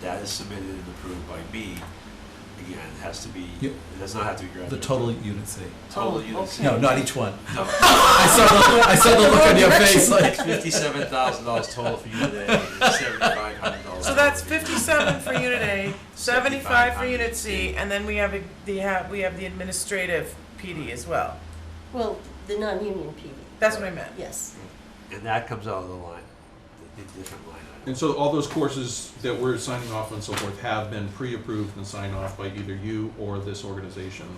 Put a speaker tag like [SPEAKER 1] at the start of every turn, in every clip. [SPEAKER 1] That is submitted and approved by me. Again, it has to be,
[SPEAKER 2] Yep.
[SPEAKER 1] it does not have to be
[SPEAKER 2] The
[SPEAKER 1] graduated.
[SPEAKER 2] total Hmm. unit C.
[SPEAKER 1] Total
[SPEAKER 3] Oh,
[SPEAKER 1] units.
[SPEAKER 3] okay.
[SPEAKER 2] No, not each one.
[SPEAKER 1] No,
[SPEAKER 2] I saw the, I saw the look on your face like,
[SPEAKER 1] fifty-seven thousand dollars total for unit A, seventy-five hundred dollars.
[SPEAKER 3] So that's fifty-seven for unit A, seventy-five for unit C, and then we have, a- the, ha- we have the administrative PD as well.
[SPEAKER 4] Well, the non-union PD,
[SPEAKER 3] That's what I meant.
[SPEAKER 4] yes.
[SPEAKER 1] And that comes out of the line, the the different line item.
[SPEAKER 5] And so all those courses that we're signing off and so forth have been pre-approved and signed off by either you or this organization,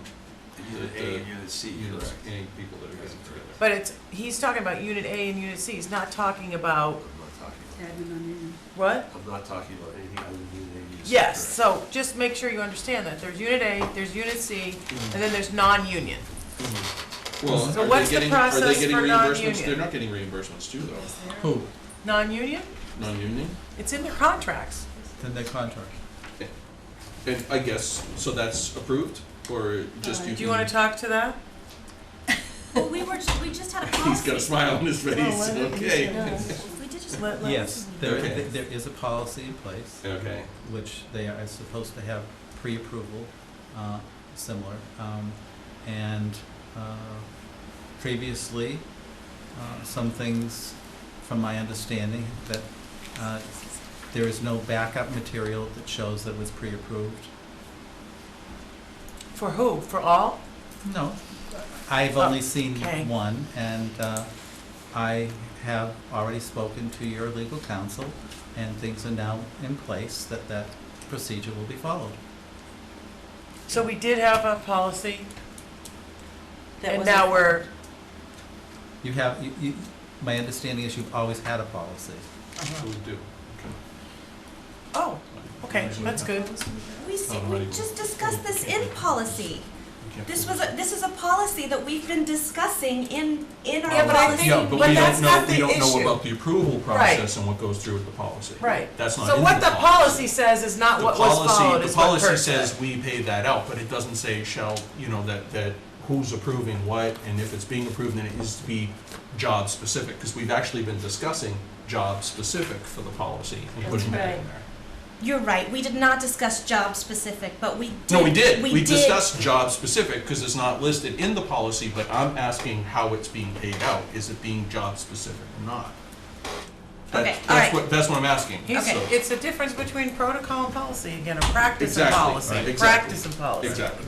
[SPEAKER 1] Unit A and unit C,
[SPEAKER 5] you know,
[SPEAKER 1] correct?
[SPEAKER 5] any people that are getting together.
[SPEAKER 3] But it's, he's talking about unit A and unit C, he's not talking
[SPEAKER 1] I'm
[SPEAKER 3] about,
[SPEAKER 1] not talking about,
[SPEAKER 3] what?
[SPEAKER 1] I'm not talking about anything other than unit A and unit C.
[SPEAKER 3] Yes,
[SPEAKER 1] correct?
[SPEAKER 3] so just make sure you understand that, there's unit A, there's unit C, and then there's non-union.
[SPEAKER 5] Well,
[SPEAKER 3] So
[SPEAKER 5] are
[SPEAKER 3] what's
[SPEAKER 5] they
[SPEAKER 3] the
[SPEAKER 5] getting, are
[SPEAKER 3] process
[SPEAKER 5] they getting
[SPEAKER 3] for
[SPEAKER 5] reimbursements?
[SPEAKER 3] non-union?
[SPEAKER 5] They're not getting reimbursements too, though.
[SPEAKER 2] who?
[SPEAKER 3] Non-union?
[SPEAKER 5] Non-union?
[SPEAKER 3] It's in their contracts.
[SPEAKER 2] Then the contract.
[SPEAKER 5] And I guess, so that's approved or just you
[SPEAKER 3] Uh, Do
[SPEAKER 5] can.
[SPEAKER 3] you wanna talk to that?
[SPEAKER 6] Well, we were, we just had a policy.
[SPEAKER 5] He's got a smile on his face,
[SPEAKER 4] why don't you
[SPEAKER 5] okay.
[SPEAKER 4] No.
[SPEAKER 6] We did just.
[SPEAKER 3] Let- let-
[SPEAKER 2] Yes, there,
[SPEAKER 5] Okay.
[SPEAKER 2] there is a policy in place.
[SPEAKER 5] Okay.
[SPEAKER 2] Which they are supposed to have pre-approval, uh, similar. Um, and, uh, previously, uh, some things, from my understanding, that, uh, there is no backup material that shows that it was pre-approved.
[SPEAKER 3] For who? For all?
[SPEAKER 2] No, I've
[SPEAKER 3] Oh,
[SPEAKER 2] only seen
[SPEAKER 3] okay.
[SPEAKER 2] one, and uh, I have already spoken to your legal counsel, and things are now in place that that procedure will be followed.
[SPEAKER 3] So we did have a policy,
[SPEAKER 4] That
[SPEAKER 3] and
[SPEAKER 4] was
[SPEAKER 3] now
[SPEAKER 4] a-
[SPEAKER 3] we're,
[SPEAKER 2] You have, you, you, my understanding is you've always had a policy.
[SPEAKER 5] We do.
[SPEAKER 3] oh, okay, that's good.
[SPEAKER 6] We, s- we
[SPEAKER 5] Alrighty.
[SPEAKER 6] just discussed this in policy.
[SPEAKER 5] Okay.
[SPEAKER 6] This was, a- this is a policy that we've been discussing in, in
[SPEAKER 3] Yeah,
[SPEAKER 6] our
[SPEAKER 3] but I
[SPEAKER 6] policy.
[SPEAKER 3] think-
[SPEAKER 5] No,
[SPEAKER 3] but
[SPEAKER 5] but we
[SPEAKER 3] that's
[SPEAKER 5] don't know,
[SPEAKER 3] not
[SPEAKER 5] we
[SPEAKER 3] the
[SPEAKER 5] don't know
[SPEAKER 3] issue.
[SPEAKER 5] about the approval process and what goes through with the policy.
[SPEAKER 3] Right.
[SPEAKER 5] That's not
[SPEAKER 3] So
[SPEAKER 5] in
[SPEAKER 3] what
[SPEAKER 5] the
[SPEAKER 3] the policy says is not
[SPEAKER 5] The
[SPEAKER 3] what was
[SPEAKER 5] policy-
[SPEAKER 3] followed, is what
[SPEAKER 5] The
[SPEAKER 3] Kurt
[SPEAKER 5] policy says
[SPEAKER 3] said.
[SPEAKER 5] we pay that out, but it doesn't say shall, you know, that, that who's approving what, and if it's being approved, then it needs to be job-specific, because we've actually been discussing job-specific for the policy and
[SPEAKER 4] That's
[SPEAKER 5] putting that in
[SPEAKER 4] right.
[SPEAKER 5] there.
[SPEAKER 6] You're right, we did not discuss job specific, but we did.
[SPEAKER 5] No, we did, we discussed job-specific, because it's not listed in the policy, but I'm asking how it's being paid out, is it being job-specific or not? That-
[SPEAKER 6] Okay, all
[SPEAKER 5] That's
[SPEAKER 6] right.
[SPEAKER 5] what, that's what I'm asking,
[SPEAKER 3] He's-
[SPEAKER 6] Okay.
[SPEAKER 5] so,
[SPEAKER 3] It's the difference between protocol and policy, again, a practice and
[SPEAKER 5] Exactly, right,
[SPEAKER 3] policy,
[SPEAKER 5] exactly.
[SPEAKER 3] practice and policy.
[SPEAKER 5] exactly.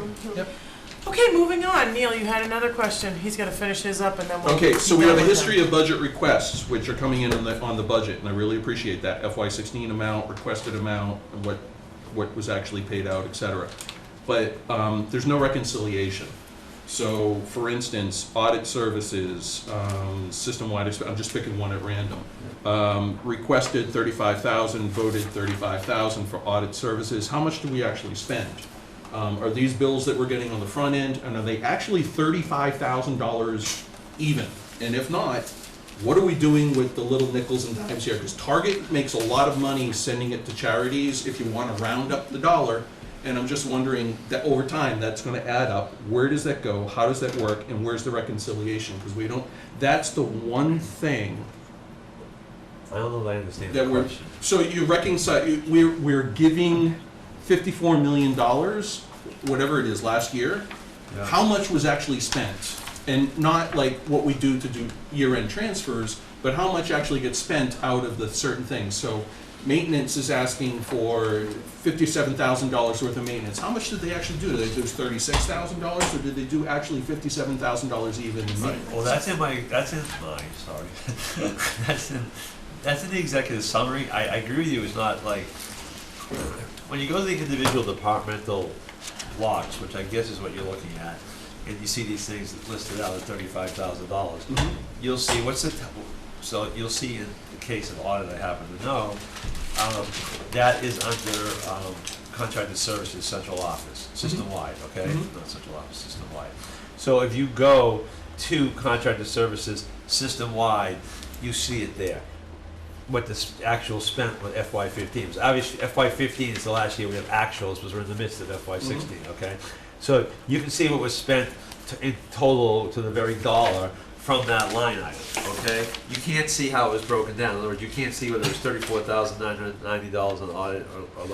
[SPEAKER 3] Okay, moving on, Neil, you had another question, he's gonna finish his up and then we'll.
[SPEAKER 5] Okay, so we have a history of budget requests, which are coming in on the, on the budget, and I really appreciate that. FY sixteen amount, requested amount, and what, what was actually paid out, et cetera. But, um, there's no reconciliation. So, for instance, audit services, um, system-wide, exp- I'm just picking one at random. Um, requested thirty-five thousand, voted thirty-five thousand for audit services. How much do we actually spend? Um, are these bills that we're getting on the front end, and are they actually thirty-five thousand dollars even? And if not, what are we doing with the little nickels and dimes here? Because Target makes a lot of money sending it to charities if you want to round up the dollar. And I'm just wondering that over time, that's going to add up. Where does that go? How does that work? And where's the reconciliation? Because we don't, that's the one thing
[SPEAKER 1] I don't know that I understand the
[SPEAKER 5] that we're,
[SPEAKER 1] question.
[SPEAKER 5] so you reconcile, you- we're, we're giving fifty-four million dollars, whatever it is, last year. How much was actually spent? And not like what we do to do year-end transfers, but how much actually gets spent out of the certain things? So maintenance is asking for fifty-seven thousand dollars worth of maintenance. How much did they actually do? Did they do thirty-six thousand dollars, or did they do actually fifty-seven thousand dollars even in maintenance?
[SPEAKER 1] Well, that's in my, that's in my, sorry. That's in, that's in the executive summary. I, I agree with you, it's not like, when you go to the individual departmental blocks, which I guess is what you're looking at, and you see these things listed out at thirty-five thousand dollars,
[SPEAKER 5] Mhm.
[SPEAKER 1] you'll see, what's the, t- so you'll see in the case of audit I happen to know, um, that is under, um, contracted services, central office, system-wide, okay?
[SPEAKER 5] Mhm.
[SPEAKER 1] Not central office, system-wide. So if you go to contracted services, system-wide, you see it there. What the s- actual spent with FY fifteen, so obviously FY fifteen is the last year we have actuals, because we're in the midst of FY sixteen, okay? So you can see what was spent t- in total to the very dollar from that line item, okay? You can't see how it was broken down, in other words, you can't see whether it was thirty-four thousand nine hundred ninety dollars on audit or, or like